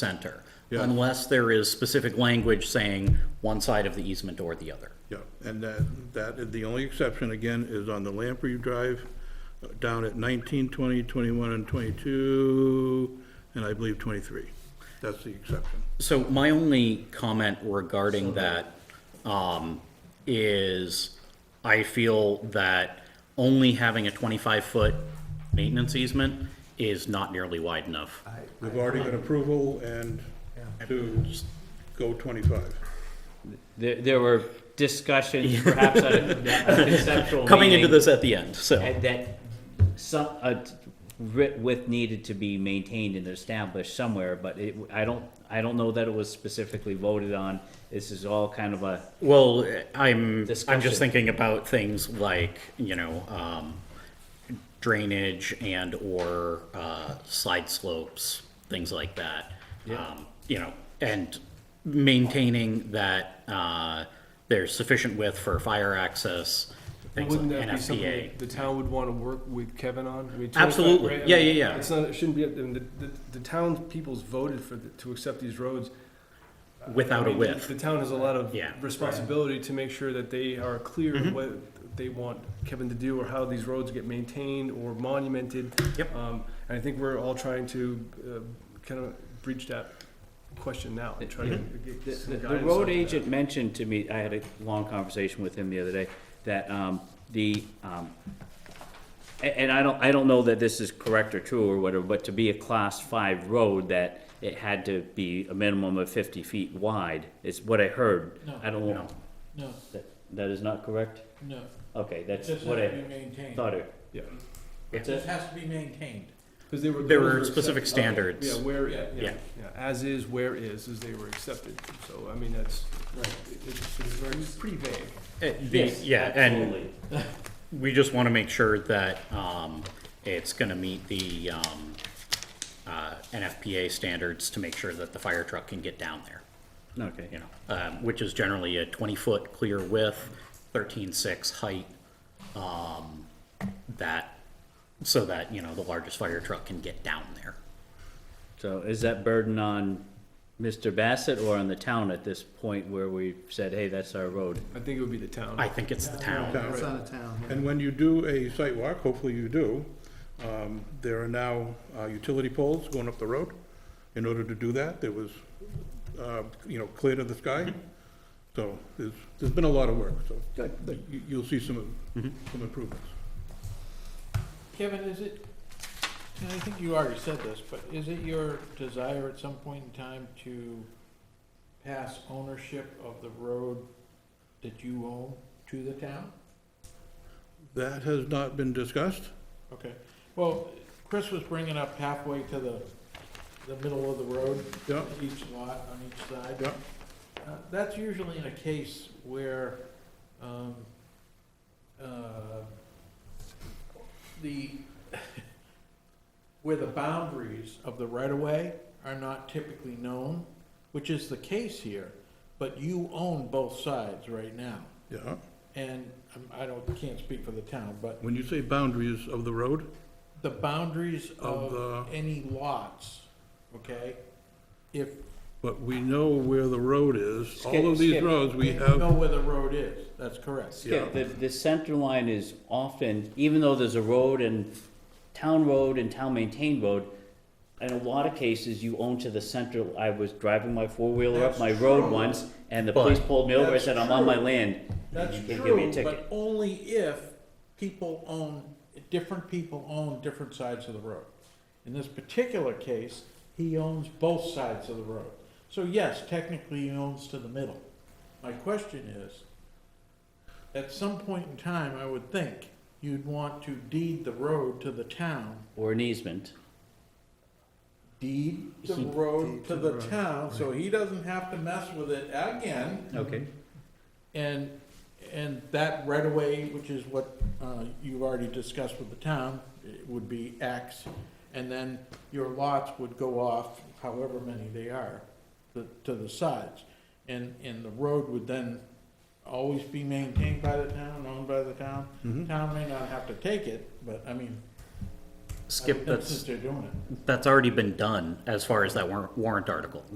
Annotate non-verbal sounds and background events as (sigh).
center, Yeah. unless there is specific language saying one side of the easement or the other. Yeah, and that, that, the only exception again is on the Lamprey Drive, uh, down at 19, 20, 21, and twenty-two, and I believe twenty-three. That's the exception. So my only comment regarding that um, is I feel that only having a 25-foot maintenance easement is not nearly wide enough. We've already got approval and to s- go twenty-five. There, there were discussions, perhaps at a (laughs) a conceptual Coming into meeting, this at the end, so, and That some, a t- writ width needed to be maintained and established somewhere, but it, I don't, I don't know that it was specifically voted on. This is all kind of a, well, I'm, I'm Discussion. just thinking about things like, you know, um, drainage and/or uh, side slopes, things like that. Um, You know, and maintaining that uh, there's sufficient width for fire access, things like Wouldn't that be something NFPA. that the town would want to work with Kevin on? I mean, 25, Absolutely. right? I Yeah, mean, yeah, yeah. It's not, it shouldn't be, up- I mean, the, the, the town people's voted for, the- to accept these roads. Without a I mean, width. The town has a lot of Yeah. Mm-hmm. responsibility to make sure that they are clear of what they want Kevin to do or how these roads get maintained or monumented. Yep. Um, and I think we're all trying to, uh, kind of breach that question now and try to the, get the some the guidance. road on that. agent mentioned to me, I had a long conversation with him the other day, that, um, the, um, a- and I don't, I don't know that this is correct or true or whatever, but to be a class five road, that it had to be a minimum of fifty feet wide, is what I heard. No. I don't Uh, know. No, That, that is not correct? no, Okay, it that's just has what to I be maintained. thought it. Yeah. Yeah. It just has to be maintained. Cause they were. There those were specific accepted. Okay, standards. Yeah, where, Yeah. yeah, Yeah. yeah, as is, where is, as they were accepted, so, I mean, that's, it- it's, it's very, it's pretty vague. Uh, the- Yes, Yeah, and absolutely. we just want to make sure that um, it's going to meet the um, uh, NFPA standards to make sure that the fire truck can get down there, you Okay, know, um, which is generally a 20-foot clear width, 13.6 height, um, that, so that, you know, the largest fire truck can get down there. so is that burden on Mr. Bassett or on the town at this point where we said, hey, that's our road? I think it would be the town. I think it's the town. Town. It's out of town. And when you do a site walk, hopefully you do, um, there are now, uh, utility poles going up the road. In order to do that, there was, uh, you know, clear to the sky. So there's, there's been a lot of work, so. You, you'll see some, some improvements. Kevin, is it, and I think you already said this, but is it your desire at some point in time to pass ownership of the road that you own to the town? That has not been discussed. Okay, well, Chris was bringing up halfway to the, the middle of the road, Yeah, each lot on each side. yeah, Uh, That's usually in a case where um, uh, the, (laughs) where the boundaries of the right-of-way are not typically known, which is the case here, but you own both sides right now. yeah. And um, I don't, can't speak for the town, but When you say boundaries of the road, the boundaries Of of any lots, okay? If. but we know where the road is. All Skip, of these skip. roads, we you have, Know where the road is, that's correct. Yeah, the, the center line is often, even though there's a road and town road and town maintained road, in a lot of cases, you own to the center, I was driving my four-wheeler up my road once, and the But- police pulled me over, I That's said, I'm on my true. land. That's You can't give me a true, ticket. but only if people own, different people own different sides of the road. In this particular case, he owns both sides of the road. So yes, technically he owns to the middle. My question is, at some point in time, I would think you'd want to deed the road to the town. Or an easement. Deed the road to the town, so he doesn't have to mess with it again. Okay. And, and that right away, which is what uh, you've already discussed with the town, it would be X. And then your lots would go off, however many they are, to to the sides. And, and the road would then always be Mm-hmm. maintained by the town, owned by the town. Mhm. Town may not have to take it, but I mean, Skip, Since that's, they're doing it. that's already been done as far as that warrant, warrant article.